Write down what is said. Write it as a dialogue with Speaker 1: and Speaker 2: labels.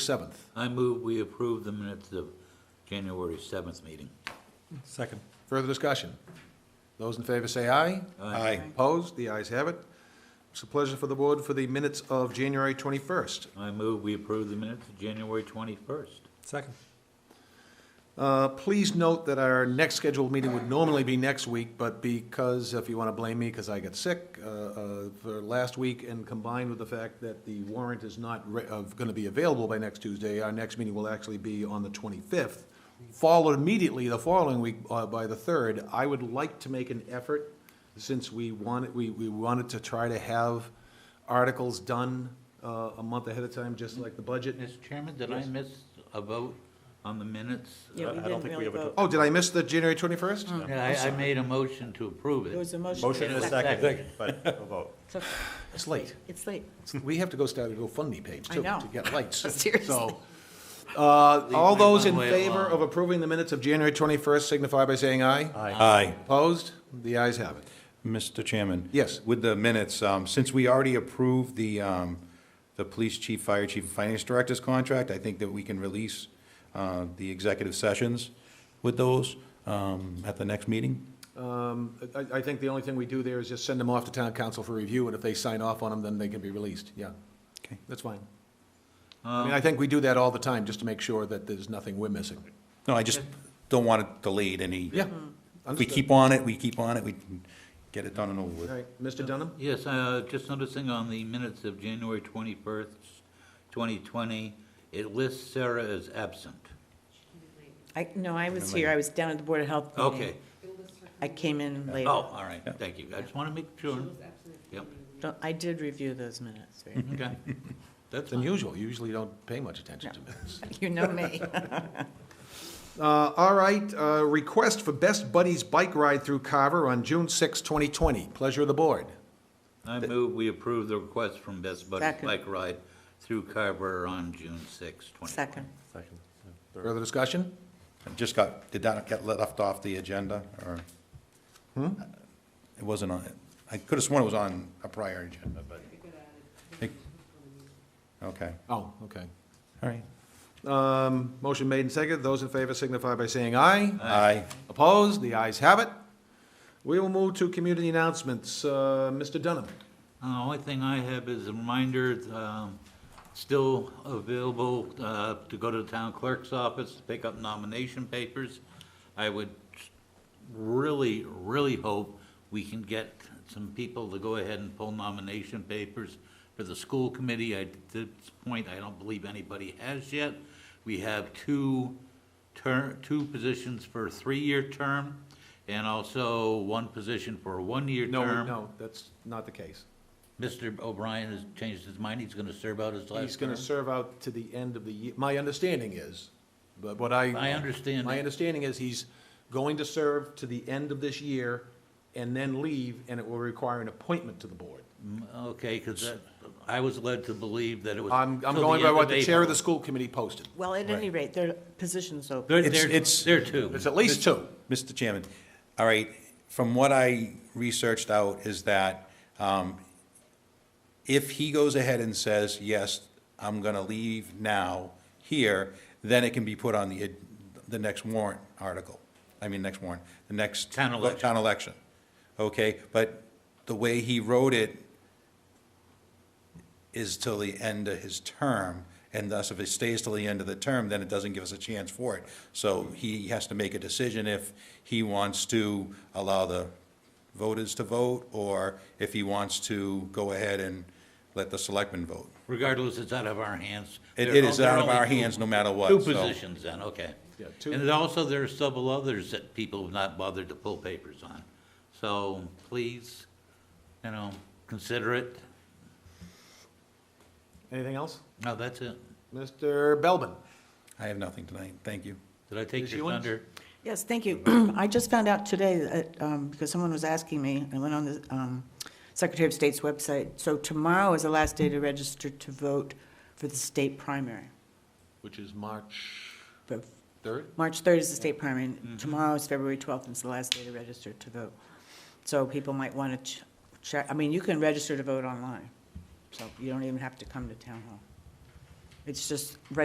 Speaker 1: 7th.
Speaker 2: I move we approve the minutes of January 7th meeting.
Speaker 3: Second.
Speaker 1: Further discussion? Those in favor say aye.
Speaker 2: Aye.
Speaker 1: Opposed? The ayes have it. It's a pleasure for the board for the minutes of January 21st.
Speaker 2: I move we approve the minutes of January 21st.
Speaker 3: Second.
Speaker 1: Uh, Please note that our next scheduled meeting would normally be next week, but because, if you want to blame me, because I got sick uh, uh, for last week, and combined with the fact that the warrant is not going to be available by next Tuesday, our next meeting will actually be on the 25th, followed immediately the following week uh, by the 3rd. I would like to make an effort, since we wanted, we we wanted to try to have articles done uh, a month ahead of time, just like the budget.
Speaker 2: Mr. Chairman, did I miss a vote on the minutes?
Speaker 4: Yeah, we
Speaker 3: I don't
Speaker 4: didn't
Speaker 3: think
Speaker 4: really
Speaker 3: we ever
Speaker 4: vote.
Speaker 1: Oh, did I miss the January 21st?
Speaker 2: Yeah, I, I made a motion to approve
Speaker 4: There
Speaker 2: it.
Speaker 4: was a motion.
Speaker 3: Motion
Speaker 4: and
Speaker 3: and a second, but no vote.
Speaker 4: So,
Speaker 1: It's late.
Speaker 4: It's late.
Speaker 1: We have to go start a GoFundMe page
Speaker 4: I
Speaker 1: too,
Speaker 4: know.
Speaker 1: to get lights.
Speaker 4: Seriously.
Speaker 1: So, uh,
Speaker 2: Leave
Speaker 1: all
Speaker 2: me
Speaker 1: those in
Speaker 2: one way
Speaker 1: favor of
Speaker 2: alone.
Speaker 1: approving the minutes of January 21st signify by saying aye.
Speaker 3: Aye.
Speaker 1: Opposed? The ayes have it.
Speaker 5: Mr. Chairman?
Speaker 1: Yes.
Speaker 5: With the minutes, um, since we already approved the, um, the police chief, fire chief, and finance director's contract, I think that we can release uh, the executive sessions with those um, at the next meeting.
Speaker 1: Um, I, I think the only thing we do there is just send them off to town council for review, and if they sign off on them, then they can be released, yeah.
Speaker 5: Okay.
Speaker 1: That's fine. I mean, I think we do that all the time, just to make sure that there's nothing we're missing.
Speaker 5: No, I just don't want it delayed any.
Speaker 1: Yeah.
Speaker 4: Mm-hmm.
Speaker 5: If we
Speaker 1: understood.
Speaker 5: keep on it, we keep on it, we can get it done and over with.
Speaker 1: All right, Mr. Dunham?
Speaker 2: Yes, uh, just noticing on the minutes of January 21st, 2020, it lists Sarah as absent.
Speaker 4: I, no, I was here. I was down at the Board of Health meeting.
Speaker 2: Okay.
Speaker 4: I came in
Speaker 2: Oh,
Speaker 4: later.
Speaker 2: all right, thank you. I just want to make sure. Yep,
Speaker 4: Don't- I did review those minutes. right?
Speaker 2: okay. That's
Speaker 1: It's
Speaker 2: fine.
Speaker 1: unusual, you usually don't pay much attention to minutes.
Speaker 4: You know me.
Speaker 1: Uh, all right, uh, request for Best Buddies Bike Ride through Carver on June 6, 2020. Pleasure of the board.
Speaker 2: I move we approve the request from Best Buddies
Speaker 4: Second.
Speaker 2: Bike Ride through Carver on June 6, 2020.
Speaker 4: Second.
Speaker 3: Second.
Speaker 1: Further discussion?
Speaker 5: I Just got, did that get left off the agenda, or? Hmm? It wasn't on, I could have sworn it was on a prior agenda, but. It- Okay,
Speaker 1: Oh, okay.
Speaker 5: all right.
Speaker 1: Um, Motion made and seconded. Those in favor signify by saying aye.
Speaker 5: Aye.
Speaker 1: Opposed? The ayes have it. We will move to community announcements. Uh, Mr. Dunham?
Speaker 2: Uh, only thing I have is a reminder, um, still available, uh, to go to the town clerk's office, to pick up nomination papers. I would really, really hope we can get some people to go ahead and pull nomination papers for the school committee. I- At this point, I don't believe anybody has yet. We have two ter two positions for a three-year term, and also one position for a one-year term.
Speaker 1: No, No, that's not the case.
Speaker 2: Mr. O'Brien has changed his mind, he's gonna serve out his
Speaker 1: He's
Speaker 2: last
Speaker 1: going
Speaker 2: term.
Speaker 1: to serve out to the end of the year. My understanding is, but what I.
Speaker 2: My understanding-
Speaker 1: My understanding is he's going to serve to the end of this year and then leave, and it will require an appointment to the board.
Speaker 2: Mm, Okay, 'cause that, I was led to believe that it was.
Speaker 1: I'm, I'm
Speaker 2: till
Speaker 1: going
Speaker 2: the
Speaker 1: by
Speaker 2: end
Speaker 1: what the chair of the
Speaker 2: April.
Speaker 1: school committee posted.
Speaker 4: Well, at any rate, their position's open.
Speaker 2: There,
Speaker 5: It's-
Speaker 2: there,
Speaker 5: it's-
Speaker 2: there too.
Speaker 1: It's at least two.
Speaker 5: Mr. Chairman, all right, from what I researched out is that um, if he goes ahead and says, yes, I'm going to leave now here, then it can be put on the, the next warrant article. I mean, next warrant, the next.
Speaker 2: Town election.
Speaker 5: Town election, okay? But the way he wrote it is till the end of his term, and thus if it stays till the end of the term, then it doesn't give us a chance for it. So he has to make a decision if he wants to allow the voters to vote, or if he wants to go ahead and let the selectmen vote.
Speaker 2: Regardless, it's out of our hands.
Speaker 5: It-
Speaker 2: There
Speaker 5: it
Speaker 2: are-
Speaker 5: is
Speaker 2: there are
Speaker 5: out of
Speaker 2: only
Speaker 5: our
Speaker 2: two-
Speaker 5: hands no matter what,
Speaker 2: Two
Speaker 5: so-
Speaker 2: positions then, okay.
Speaker 1: Yeah, two-
Speaker 2: And then also, there are several others that people have not bothered to pull papers on. So please, you know, consider it.
Speaker 1: Anything else?
Speaker 2: No, that's it.
Speaker 1: Mr. Belbin?
Speaker 5: I have nothing tonight, thank you.
Speaker 2: Did I take
Speaker 1: Ms.
Speaker 2: your
Speaker 1: Ewens?
Speaker 2: thunder?
Speaker 4: Yes, thank you. I just found out today, that, um, because someone was asking me, I went on the um, Secretary of State's website, so tomorrow is the last day to register to vote for the state primary.
Speaker 1: Which is March
Speaker 4: For
Speaker 1: 3rd?
Speaker 4: March 3rd is the state primary, and tomorrow is February 12th, and it's the last day to register to vote. So people might want to check, I mean, you can register to vote online, so you don't even have to come to town hall. It's just